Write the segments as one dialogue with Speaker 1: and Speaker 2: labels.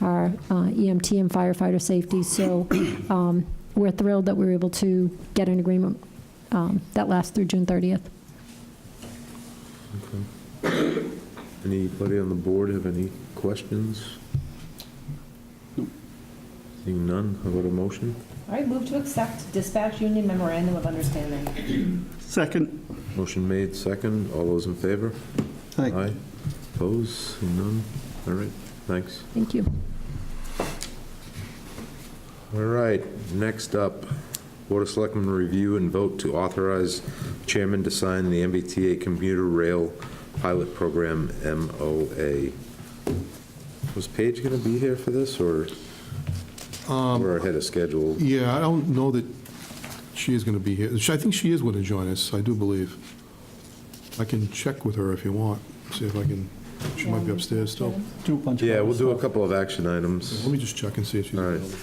Speaker 1: our uh, EMT and firefighter safety. So um, we're thrilled that we were able to get an agreement um, that lasts through June 30th.
Speaker 2: Anybody on the board have any questions? Seeing none, how about a motion?
Speaker 3: All right, move to accept dispatch union memorandum of understanding.
Speaker 4: Second.
Speaker 2: Motion made, second. All those in favor?
Speaker 4: Aye.
Speaker 2: Opposed? Seeing none? All right, thanks.
Speaker 1: Thank you.
Speaker 2: All right, next up, Board of Selectmen review and vote to authorize chairman to sign the MBTA commuter rail pilot program MOA. Was Paige going to be here for this, or we're ahead of schedule?
Speaker 5: Yeah, I don't know that she is going to be here. She- I think she is going to join us, I do believe. I can check with her if you want, see if I can, she might be upstairs still.
Speaker 4: Do a bunch of.
Speaker 2: Yeah, we'll do a
Speaker 4: stuff.
Speaker 2: couple of action items,
Speaker 5: Let me just check and see if she's
Speaker 2: All right.
Speaker 5: available.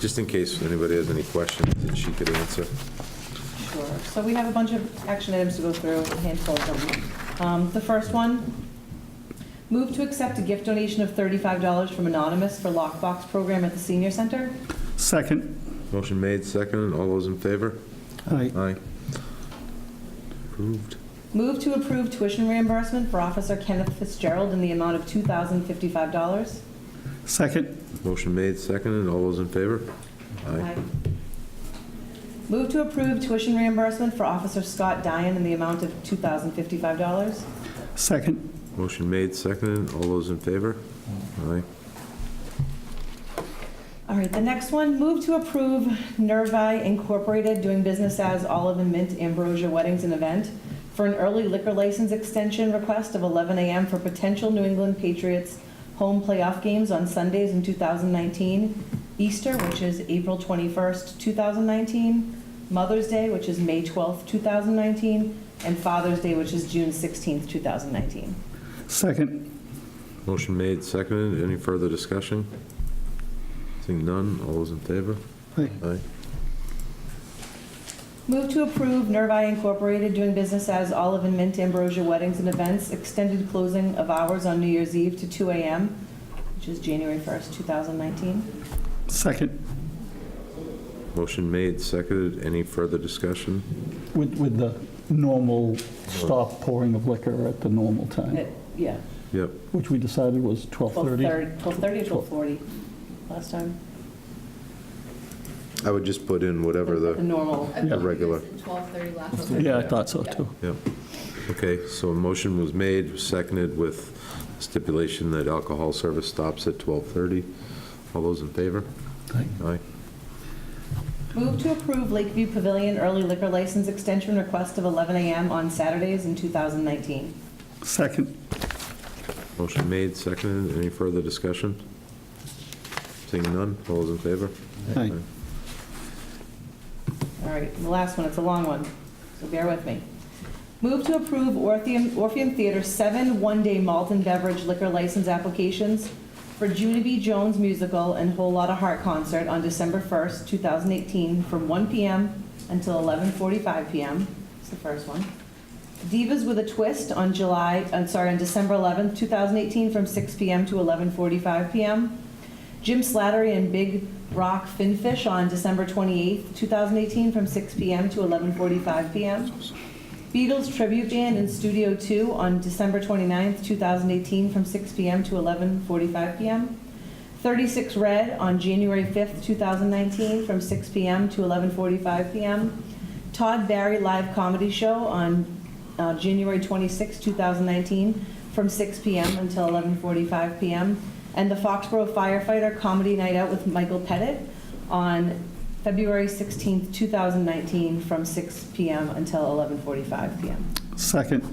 Speaker 2: just in case anybody has any questions that she could answer.
Speaker 3: Sure. So we have a bunch of action items to go through, a handful of them. Um, The first one, move to accept a gift donation of $35 from Anonymous for lockbox program at the senior center.
Speaker 4: Second.
Speaker 2: Motion made, second. All those in favor?
Speaker 4: Aye.
Speaker 2: Aye. Approved.
Speaker 3: Move to approve tuition reimbursement for Officer Kenneth Fitzgerald in the amount of $2,055.
Speaker 4: Second.
Speaker 2: Motion made, second. All those in favor? Aye.
Speaker 3: Move to approve tuition reimbursement for Officer Scott Dyan in the amount of $2,055.
Speaker 4: Second.
Speaker 2: Motion made, second. All those in favor? Aye.
Speaker 3: All right, the next one, move to approve Nervi Incorporated doing business as Olive and Mint Ambrosia Weddings and Event for an early liquor license extension request of 11 a.m. for potential New England Patriots home playoff games on Sundays in 2019, Easter, which is April 21st, 2019, Mother's Day, which is May 12th, 2019, and Father's Day, which is June 16th, 2019.
Speaker 4: Second.
Speaker 2: Motion made, second. Any further discussion? Seeing none. All those in favor?
Speaker 4: Aye.
Speaker 2: Aye.
Speaker 3: Move to approve Nervi Incorporated doing business as Olive and Mint Ambrosia Weddings and Events, extended closing of hours on New Year's Eve to 2 AM, which is January 1st, 2019.
Speaker 4: Second.
Speaker 2: Motion made, second. Any further discussion?
Speaker 4: With, with the normal stop pouring of liquor at the normal time,
Speaker 3: It- Uh, Yeah,
Speaker 2: Yep.
Speaker 4: which we decided was 12:30.
Speaker 3: 12:30 12:30 or 12:40 last time.
Speaker 2: I would just put in whatever
Speaker 3: The
Speaker 2: the,
Speaker 3: normal.
Speaker 6: I believe
Speaker 2: regular.
Speaker 6: it's at 12:30 last.
Speaker 4: Yeah, I thought so too.
Speaker 2: yep. Okay, so a motion was made, seconded with stipulation that alcohol service stops at 12:30. All those in favor?
Speaker 4: Aye.
Speaker 2: Aye.
Speaker 3: Move to approve Lakeview Pavilion early liquor license extension request of 11 AM on Saturdays in 2019.
Speaker 4: Second.
Speaker 2: Motion made, seconded. Any further discussion? Seeing none, all those in favor?
Speaker 4: Aye.
Speaker 3: All right, and the last one, it's a long one, so bear with me. Move to approve Orpheum, Orpheum Theater's seven one-day malt and beverage liquor license applications for Judy B. Jones musical and Whole Lotta Heart concert on December 1st, 2018, from 1 PM until 11:45 PM. It's the first one. Divas with a Twist on July, I'm sorry, on December 11th, 2018, from 6 PM to 11:45 PM. Jim Slattery and Big Rock Finfish on December 28th, 2018, from 6 PM to 11:45 PM. Beatles Tribute Band in Studio 2 on December 29th, 2018, from 6 PM to 11:45 PM. 36 Red on January 5th, 2019, from 6 PM to 11:45 PM. Todd Barry Live Comedy Show on uh, January 26th, 2019, from 6 PM until 11:45 PM. And the Foxborough Firefighter Comedy Night Out with Michael Pettit on February 16th, 2019, from 6 PM until 11:45 PM.
Speaker 4: Second.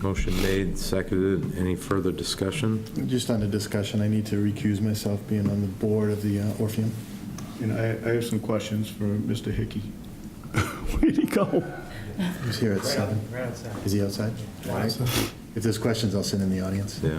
Speaker 2: Motion made, seconded. Any further discussion?
Speaker 7: Just on the discussion, I need to recuse myself being on the board of the uh, Orpheum.
Speaker 8: And I, I have some questions for Mr. Hickey.
Speaker 4: Where'd he go?
Speaker 7: He's here at seven. Is he outside? All right. If there's questions, I'll send in the audience.
Speaker 2: Yeah.